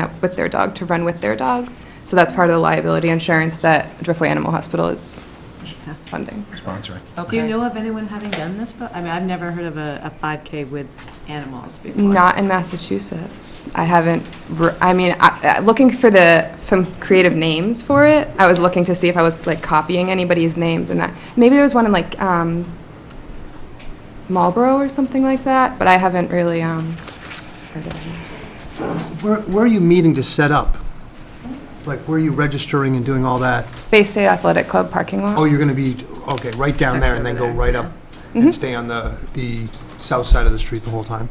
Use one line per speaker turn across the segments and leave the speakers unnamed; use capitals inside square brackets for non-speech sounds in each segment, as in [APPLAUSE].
out with their dog to run with their dog. So that's part of the liability insurance that Driftway Animal Hospital is
Yeah.
funding.
sponsoring.
Do you
Okay.
know of anyone having done this? But I mean, I've never heard of a, a 5K with animals before.
Not in Massachusetts. I haven't, r- I mean, I, I- looking for the, some creative names for it, I was looking to see if I was like copying anybody's names and that, maybe there was one in like, um, Marlboro or something like that, but I haven't really, um, heard of it.
Where, where are you meeting to set up? Like, where are you registering and doing all that?
Bay State Athletic Club parking lot.
Oh, you're gonna be, okay, right down there and then go right up
Mm-hmm.
and stay on the, the south side of the street the whole time?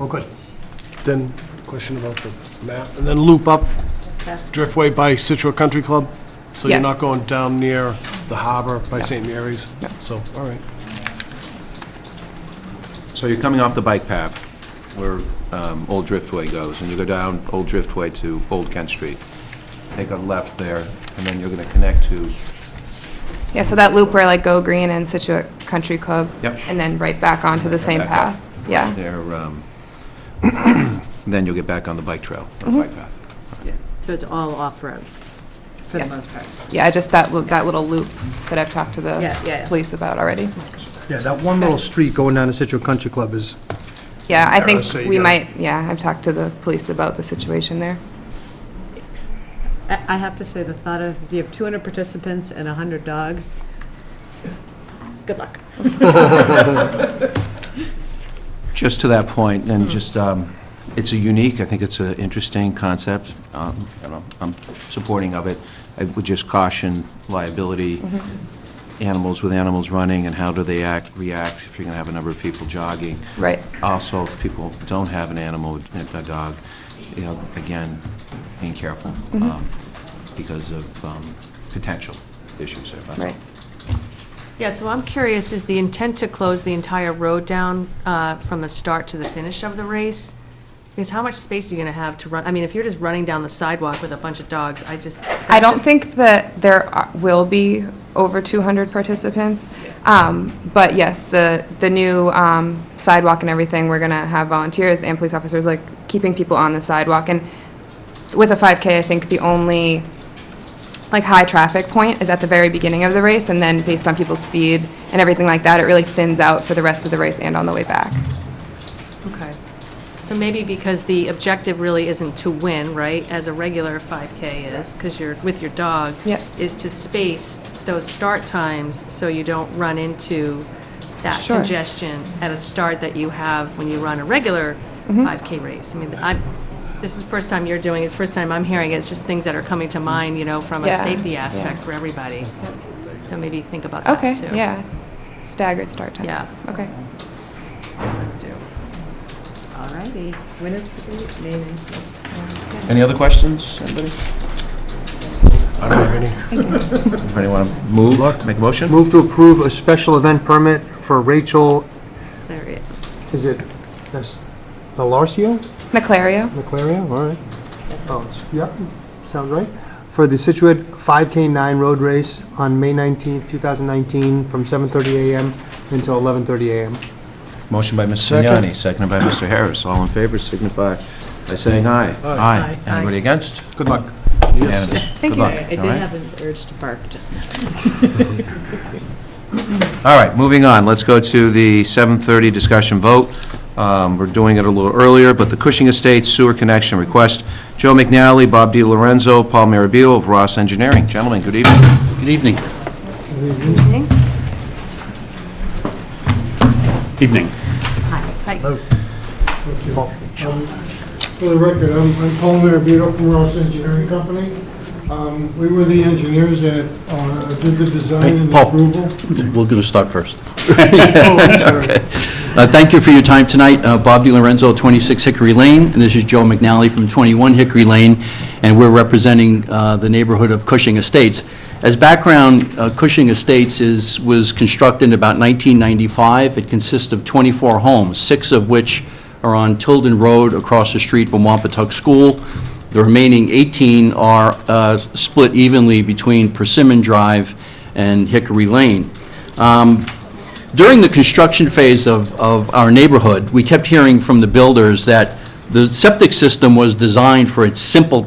Oh, good.
Then, question about the map, and then loop up Driftway by Situate Country Club? So you're
Yes.
not going down near the harbor by St. Mary's? So, all right.
So you're coming off the bike path where um, Old Driftway goes, and you go down Old Driftway to Old Kent Street. Take a left there, and then you're going to connect to,
Yeah, so that loop where like Go Green and Situate Country Club.
Yep.
And then right back onto the same
back up.
path. Yeah.
there, um, [CLEARS THROAT] then you'll get back on the bike trail, or bike
Mm-hmm.
path.
So it's all off-road, for the most
Yes. Yeah, just that, li- that little loop that I've talked to
Yeah, yeah,
the
yeah.
police about already.
Yeah, that one little street going down to Situate Country Club is,
Yeah, I
Arrow,
think
so you
we
gotta-
might, yeah, I've talked to the police about the situation there.
part. I, I have to say, the thought of, if you have 200 participants and 100 dogs, good luck.
Just to that point, and just, um, it's a unique, I think it's an interesting concept. um, you know, I'm supporting of it. I would just caution liability, animals with animals running, and how do they act, react if you're going to have a number of people jogging.
Right.
Also, if people don't have an animal, a dog, you know, again, being careful
Mm-hmm.
um, because of um, potential issues there. that's all.
Right.
Yeah, so I'm curious, is the intent to close the entire road down uh, from the start to the finish of the race? Because how much space are you going to have to run? I mean, if you're just running down the sidewalk with a bunch of dogs, I just.
I
that
don't
just-
think that there are- will be over 200 participants. Um, But yes, the, the new um, sidewalk and everything, we're going to have volunteers and police officers, like, keeping people on the sidewalk. And with a 5K, I think the only, like, high traffic point is at the very beginning of the race, and then based on people's speed and everything like that, it really thins out for the rest of the race and on the way back.
Okay. So maybe because the objective really isn't to win, right, as a regular 5K is, because you're with your dog.
Yep.
Is to space those start times so you don't run into that
Sure.
congestion at a start that you have when you run a regular
Mm-hmm.
5K race. I mean, I'm, this is the first time you're doing, it, it's the first time I'm hearing it, it's just things that are coming to mind, you know, from a
Yeah,
safety
yeah.
aspect for everybody. So maybe think about that
Okay,
too.
yeah. Staggered start times.
Yeah.
Okay.
All righty, winners for the May 19th.
Any other questions, anybody?
I don't have any.
Anybody want to move, make a motion?
move to approve a special event permit for Rachel,
There it is.
is it, that's, Nalarcio?
Naclario?
Naclario, all right. Oh, it's- yeah, sounds right. For the Situate 5K9 Road Race on May 19th, 2019, from 7:30 a.m. until 11:30 a.m.
Motion by Mr.
Second.
Vignani, seconded by Mr. Harris. All in favor signify by saying aye. Aye. Anybody against?
Good luck.
Yes. Good luck,
I did
all right?
have an urge to bark just now.
All right, moving on. Let's go to the 7:30 discussion vote. Um, We're doing it a little earlier, but the Cushing Estates sewer connection request. Joe McNally, Bob Di Lorenzo, Paul Mirabile of Ross Engineering. Gentlemen, good evening.
Good evening. Evening.
For the record, I'm I'm Paul Marabito from Ross Engineering Company. Um, We were the engineers that uh, did the design
Hey,
and
Paul.
approval.
[LAUGHS] We're going to start first. Uh, Thank you for your time tonight. Uh, Bob DiLorenzo, 26 Hickory Lane, and this is Joe McNally from 21 Hickory Lane, and we're representing uh, the neighborhood of Cushing Estates. As background, uh, Cushing Estates is, was constructed in about 1995. It consists of 24 homes, six of which are on Tilden Road across the street from Wampatuck School. The remaining 18 are uh, split evenly between Persimmon Drive and Hickory Lane. Um, during the construction phase of, of our neighborhood, we kept hearing from the builders that The septic system was designed for its simple